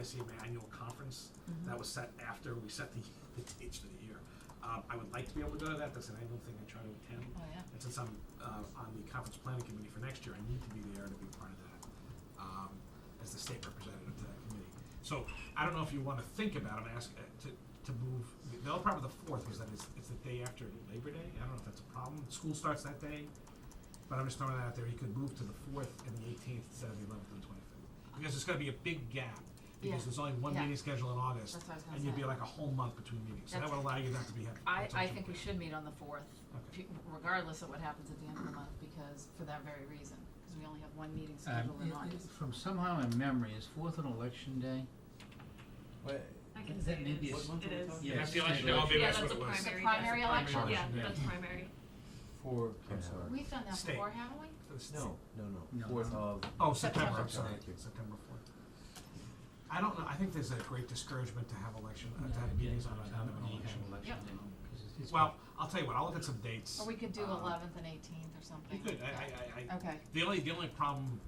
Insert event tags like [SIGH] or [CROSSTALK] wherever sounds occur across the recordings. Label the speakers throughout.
Speaker 1: ICMA annual conference that was set after we set the, [LAUGHS] the dates for the year. Um, I would like to be able to go to that, that's an annual thing I try to attend.
Speaker 2: Oh, yeah.
Speaker 1: And since I'm, uh, on the conference planning committee for next year, I need to be there to be part of that, um, as the state representative to that committee. So, I don't know if you wanna think about, it. I'm asking, to, to move, the other problem with the fourth is that it's, it's the day after Labor Day, I don't know if that's a problem, school starts that day. But I'm just throwing that out there, you could move to the fourth and the eighteenth instead of the eleventh and twenty-fifth, because it's gonna be a big gap,
Speaker 2: Yeah.
Speaker 1: because there's only one
Speaker 2: Yeah.
Speaker 1: meeting scheduled in August.
Speaker 2: That's what I was gonna
Speaker 1: And you'd be
Speaker 2: say.
Speaker 1: like a whole month between meetings, so that
Speaker 2: That's-
Speaker 1: would allow you not to be having.
Speaker 2: I, I
Speaker 1: potential
Speaker 2: think we
Speaker 1: issues.
Speaker 2: should meet on the fourth,
Speaker 1: Okay.
Speaker 2: p- regardless of what happens at the end of the month, because, for that very reason, because we only have one meeting
Speaker 3: Um,
Speaker 2: scheduled in
Speaker 3: i- i-
Speaker 2: August.
Speaker 3: From somehow in memory, is fourth an election day?
Speaker 4: Wait,
Speaker 5: I can
Speaker 3: Is
Speaker 5: say
Speaker 3: that
Speaker 5: it
Speaker 3: maybe a
Speaker 5: is.
Speaker 3: s-
Speaker 4: what month are we
Speaker 5: It is.
Speaker 4: talking
Speaker 3: Yeah,
Speaker 4: about?
Speaker 3: it's
Speaker 1: the election,
Speaker 3: scheduled.
Speaker 1: I'll be- that's
Speaker 5: Yeah, that's a
Speaker 1: what it was.
Speaker 2: It's
Speaker 5: primary.
Speaker 2: a primary
Speaker 5: that's-
Speaker 1: election.
Speaker 5: Yeah,
Speaker 1: Yeah.
Speaker 5: that's primary.
Speaker 4: For,
Speaker 6: Yeah.
Speaker 4: I'm sorry.
Speaker 2: We've done that
Speaker 1: State.
Speaker 2: before, haven't we?
Speaker 1: For the state.
Speaker 4: No, no,
Speaker 3: No,
Speaker 4: no, fourth
Speaker 3: no.
Speaker 4: of,
Speaker 1: Oh, September,
Speaker 2: September.
Speaker 1: I'm sorry,
Speaker 4: Thank you.
Speaker 1: September fourth. I don't know, I think there's a great discouragement to have election, uh, to have meetings on a, on an election.
Speaker 2: Yep.
Speaker 1: Well, I'll tell you what, I'll look at some dates.
Speaker 2: Or we could do
Speaker 1: Um,
Speaker 2: eleventh and eighteenth or something.
Speaker 1: You could, I,
Speaker 2: Yeah.
Speaker 1: I, I, I,
Speaker 2: Okay,
Speaker 1: the only, the only problem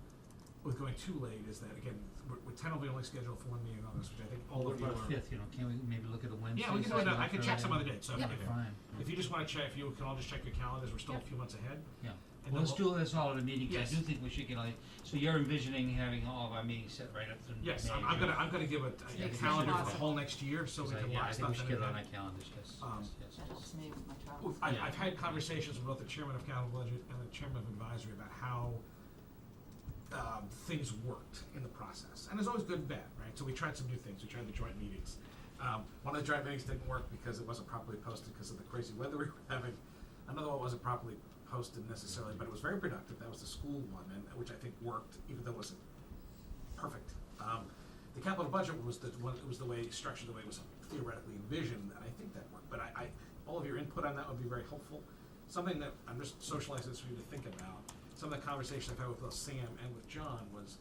Speaker 1: with going too late is that, again, we're, we're tentatively only scheduled for one meeting on this, which I think all
Speaker 3: What
Speaker 1: of you are.
Speaker 3: about a fifth, you know, can we maybe look at a Wednesday?
Speaker 1: Yeah, we can do it,
Speaker 3: something
Speaker 1: uh, I
Speaker 3: like
Speaker 1: can check
Speaker 3: that?
Speaker 1: some other dates, so.
Speaker 2: Yep.
Speaker 1: okay.
Speaker 3: Fine,
Speaker 1: If you just wanna check, if you can all just check your calendars, we're still a
Speaker 2: Yep.
Speaker 1: few months ahead.
Speaker 3: yeah.
Speaker 1: And
Speaker 3: Well,
Speaker 1: then
Speaker 3: let's
Speaker 1: we'll-
Speaker 3: do this all at a meeting, 'cause
Speaker 1: Yes.
Speaker 3: I do think we should get, like, so you're envisioning having all of our meetings set right up to May,
Speaker 1: Yes, I'm, I'm gonna, I'm gonna give a,
Speaker 3: Yeah,
Speaker 1: a
Speaker 3: we
Speaker 1: calendar
Speaker 2: should
Speaker 1: for the
Speaker 2: also-
Speaker 1: whole next year, so we
Speaker 3: Because I-
Speaker 1: can
Speaker 3: yeah,
Speaker 1: lock stuff in.
Speaker 3: I think we should get it on
Speaker 1: and-
Speaker 3: our calendars, yes,
Speaker 1: Um,
Speaker 3: yes, yes,
Speaker 2: that
Speaker 3: yes.
Speaker 2: helps me with my
Speaker 1: Well,
Speaker 2: travels.
Speaker 1: I've,
Speaker 3: Yeah.
Speaker 1: I've had conversations with both the chairman of capital budget and the chairman of advisory about how um, things worked in the process, and there's always good and bad, right? So we tried some new things. We tried the joint meetings. Um, one of the joint meetings didn't work because it wasn't properly posted because of the crazy weather [LAUGHS] we were having. Another one wasn't properly posted necessarily, but it was very productive. That was the school one, and which I think worked, even though it wasn't perfect. Um, the capital budget was the one, it was the way, structured the way it was theoretically envisioned, and I think that worked, but I, I, all of your input on that would be very helpful. Something that, I'm just socializing this for you to think about, some of the conversation I've had with both Sam and with John was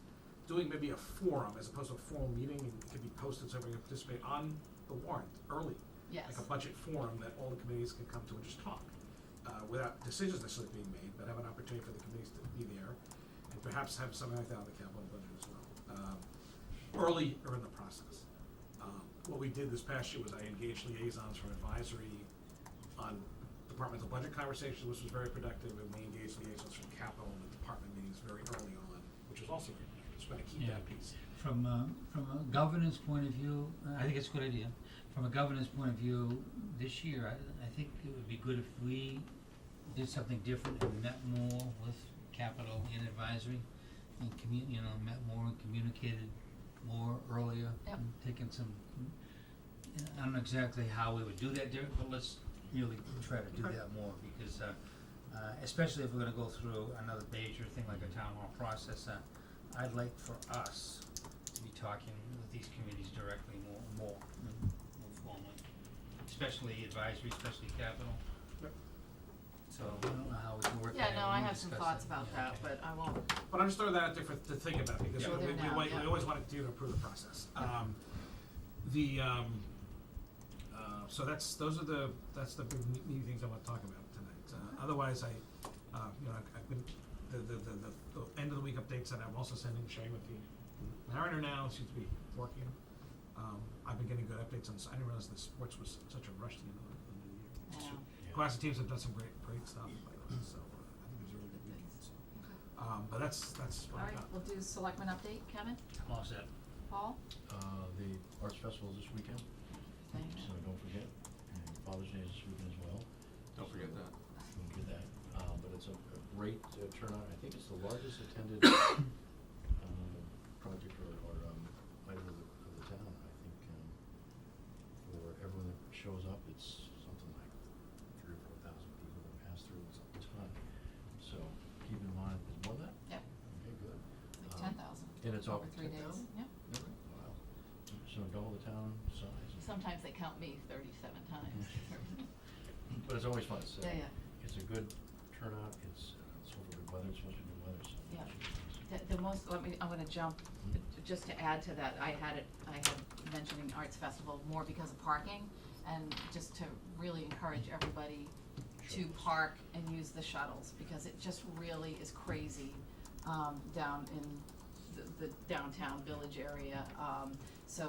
Speaker 1: doing maybe a forum as opposed to a formal meeting, and it could be posted so everyone can participate on the warrant early. Like
Speaker 2: Yes.
Speaker 1: a budget forum that all the committees can come to and just talk, uh, without decisions necessarily being made, but have an opportunity for the committees to be there, and perhaps have something like that on the capital budget as well. Um, early or in the process. Um, What we did this past year was I engaged liaisons from advisory on departmental budget conversations, which was very productive, and we engaged liaisons from capital and the department meetings very early on, which was also very productive, so I keep that
Speaker 3: Yeah.
Speaker 1: piece.
Speaker 3: From a, from a governance point of view, uh, I think it's a good idea. From a governance point of view, this year, I, I think it would be good if we did something different and met more with capital and advisory. And commu- you know, met more and communicated more earlier.
Speaker 2: Yep.
Speaker 3: and Taken some, I don't know exactly how we would do that different, but let's really try to do
Speaker 1: Okay.
Speaker 3: that more because, uh, uh, especially if we're gonna go through another major thing like a town hall process, uh, I'd like for us to be talking with these committees directly more, more, more formally, especially advisory, especially capital.
Speaker 1: Yep.
Speaker 3: So I don't know how we can work that
Speaker 2: Yeah,
Speaker 3: in,
Speaker 2: no,
Speaker 3: we'll
Speaker 2: I have some
Speaker 3: discuss
Speaker 2: thoughts
Speaker 3: it.
Speaker 2: about
Speaker 3: Yeah,
Speaker 2: that,
Speaker 3: okay.
Speaker 2: but I won't,
Speaker 1: But I'm just throwing that out there for, to think about, because
Speaker 2: Yeah.
Speaker 1: we,
Speaker 2: Go
Speaker 1: we,
Speaker 2: there now,
Speaker 1: we, we
Speaker 2: yeah.
Speaker 1: always want to do to improve the process. Um, the, um, uh, so that's, those are the, that's the big new, new things I want to talk about tonight. Uh, otherwise, I, uh, you know, I've, I've been, the, the, the, the, the end of the week updates that I'm also sending, sharing with the Mariner now seems to be working. Um, I've been getting good updates on, s- I didn't realize the sports was such a rush to the end of the, the year.
Speaker 2: Yeah.
Speaker 1: Classic teams have done some great, great stuff, by the way, so, uh, I think it was a really good weekend, so. Um, but that's, that's what I
Speaker 2: all right,
Speaker 1: got.
Speaker 2: we'll do selectmen update, Kevin,
Speaker 3: I'm all set.
Speaker 2: Paul?
Speaker 6: Uh, the Arts Festival is this weekend,
Speaker 2: Thank you.
Speaker 6: so don't forget, and Father's Day is this weekend as well.
Speaker 7: Don't forget that.
Speaker 6: Don't forget that, uh, but it's a, a great uh, turnout, I think it's the largest attended, [COUGHS] um, project or, or, um, item of the, of the town, I think, um, for everyone that shows up, it's something like three or four thousand people that pass through, it's a ton, so keep in mind, is more than that?
Speaker 2: Yep,
Speaker 6: Okay, good.
Speaker 2: like
Speaker 6: Um,
Speaker 2: ten thousand.
Speaker 6: and it's all-
Speaker 2: Over three days,
Speaker 6: 10,000?
Speaker 2: yeah.
Speaker 6: Wow, so double the town size.
Speaker 2: Sometimes they count me thirty-seven times.
Speaker 6: But it's always fun, so.
Speaker 2: Yeah, yeah.
Speaker 6: It's a good turnout, it's, uh, it's sort of good weather, it's supposed to be good weather, so.
Speaker 2: Yeah.
Speaker 6: it should be nice.
Speaker 2: The, the most, let me, I'm gonna jump, just to add to that, I had it, I had mentioning Arts Festival more because of parking, and just to really encourage everybody to
Speaker 6: Shuttles.
Speaker 2: park and use the shuttles, because it just really is crazy, um, down in the, the downtown village area, um, so